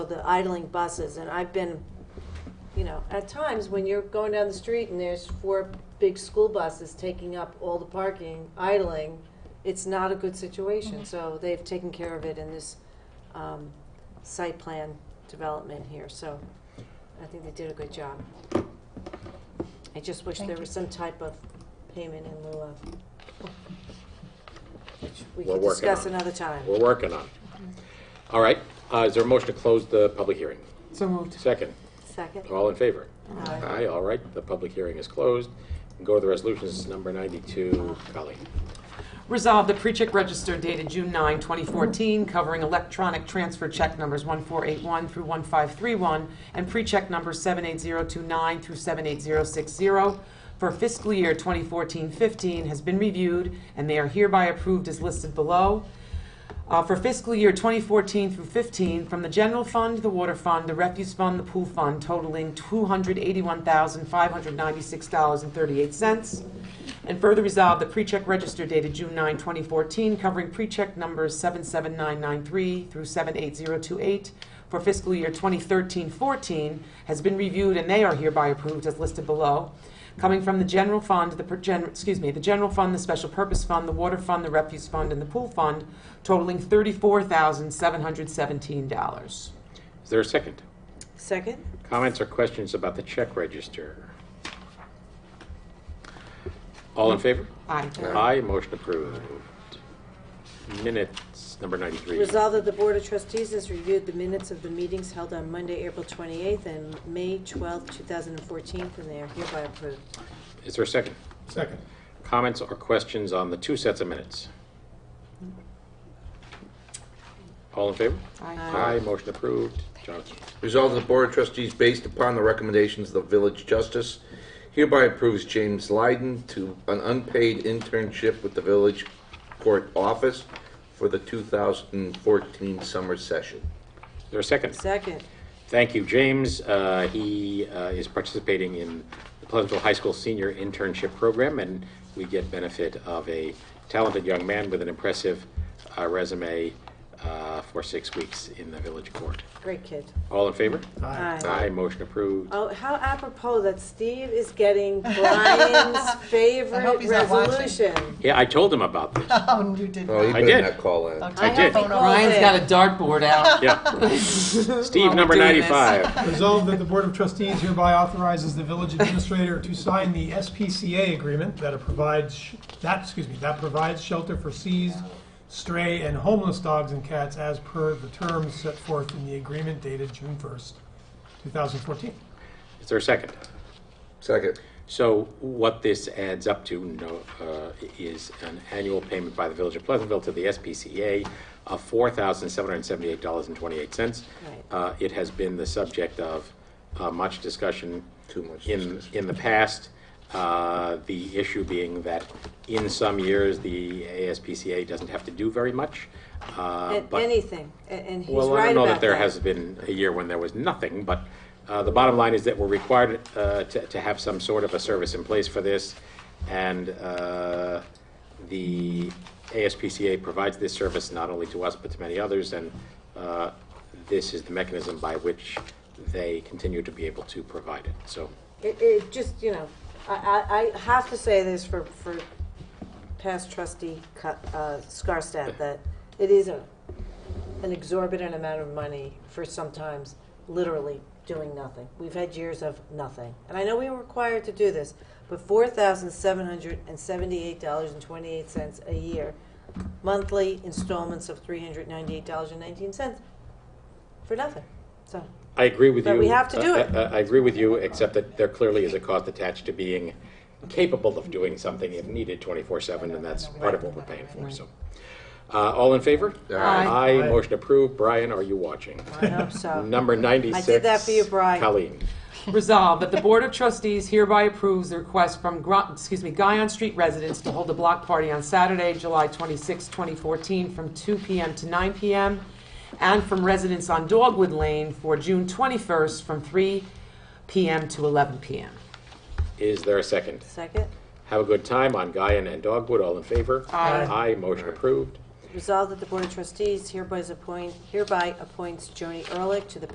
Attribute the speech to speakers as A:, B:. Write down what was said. A: the idling buses, and I've been, you know, at times when you're going down the street and there's four big school buses taking up all the parking, idling, it's not a good situation, so they've taken care of it in this, um, site plan development here, so I think they did a good job. I just wish there
B: Thank
A: was some type of payment in lieu of, which we
C: We're
A: could
C: working
A: discuss
C: on it.
A: another time.
C: We're working on. it. All right, uh, is there a motion to close the public hearing?
D: So moved.
C: Second,
A: Second?
C: all in favor?
A: Aye.
C: Aye, all right, the public hearing is closed. Go to the resolutions, number 92, Colleen.
D: Resolve the pre-check register dated June 9, 2014, covering electronic transfer check numbers 1481 through 1531 and pre-check numbers 78029 through 78060 for fiscal year 2014-15 has been reviewed, and they are hereby approved as listed below. Uh, For fiscal year 2014 through 15, from the general fund, the water fund, the refuse fund, the pool fund totaling $281,596.38. And further resolve the pre-check register dated June 9, 2014, covering pre-check numbers 77993 through 78028 for fiscal year 2013-14 has been reviewed and they are hereby approved as listed below. Coming from the general fund, the, per- gen- excuse me, the general fund, the special purpose fund, the water fund, the refuse fund, and the pool fund totaling $34,717.
C: Is there a second?
A: Second?
C: Comments or questions about the check register? All in favor?
D: Aye.
C: Aye, motion approved. Minutes, number 93.
A: Resolved that the Board of Trustees has reviewed the minutes of the meetings held on Monday, April 28th and May 12th, 2014, and they are hereby approved.
C: Is there a second?
E: Second.
C: Comments or questions on the two sets of minutes? All in favor?
D: Aye.
C: Aye, motion approved. Jonathan,
F: Resolved that the Board of Trustees, based upon the recommendations of the Village Justice, hereby approves James Lyden to an unpaid internship with the Village Court Office for the 2014 summer session.
C: is there a second?
A: Second,
C: Thank you, James. Uh, He uh, is participating in the Pleasantville High School Senior Internship Program, and we get benefit of a talented young man with an impressive uh, resume uh, for six weeks in the village court.
A: great kid.
C: All in favor?
A: Aye.
C: Aye, motion approved.
A: Oh, how apropos that Steve is getting Brian's favorite
B: he's not watching.
A: resolution.
C: Yeah, I told him about this.
B: Oh, you did.
F: Oh, you
B: not.
C: I
F: better
C: did.
F: not call in.
B: Okay.
C: I did.
A: phone over.
D: Ryan's got a dartboard out.
C: Yeah. Steve,
D: While
C: number
D: we're doing this.
C: 95.
E: Resolved that the Board of Trustees hereby authorizes the village administrator to sign the SPCA agreement that provides, sh- that, excuse me, that provides shelter for seized, stray, and homeless dogs and cats as per the terms set forth in the agreement dated June 1st, 2014.
C: Is there a second?
F: Second.
C: So what this adds up to no, uh, is an annual payment by the Village of Pleasantville to the SPCA of $4,778.28. Uh, It has been the subject of uh, much discussion
F: Too much
C: in, in the past. Uh, The issue being that in some years, the ASPCA doesn't have to do very much. uh,
A: And
C: but-
A: Anything, a- and he's right about
C: well, I don't know that there has been a year when there was nothing, but uh, the bottom line is that we're required uh, to to have some sort of a service in place for this, and uh, the ASPCA provides this service not only to us, but to many others, and uh, this is the mechanism by which they continue to be able to provide it. So,
A: It, it just, you know, I, I, I have to say this for, for past trustee Cu- uh, Scarstad, that it is a, an exorbitant amount of money for sometimes literally doing nothing. We've had years of nothing. And I know we were required to do this, but four thousand seven hundred and seventy-eight dollars and twenty-eight cents a year, monthly installments of three hundred ninety-eight dollars and nineteen cents for nothing. So,
C: I agree with you.
A: But we have to do
C: Uh,
A: it.
C: uh, I agree with you, except that there clearly is a cost attached to being capable of doing something if needed 24/7, and that's part of what we're paying for, so. Uh, All in favor?
F: Aye.
C: Aye, motion approved. Brian, are you watching?
A: I hope so.
C: Number 96.
A: I did that for you, Brian.
C: Colleen.
D: Resolved that the Board of Trustees hereby approves the request from, Gr- excuse me, Guyon Street residents to hold a block party on Saturday, July 26, 2014, from 2 PM to 9 PM, and from residents on Dogwood Lane for June 21st, from 3 PM to 11 PM.
C: Is there a second?
A: Second?
C: Have a good time on Guyan and Dogwood. All in favor?
D: Aye.
C: Aye, motion approved.
A: Resolved that the Board of Trustees hereby appoint, hereby appoints Joni Ehrlich to the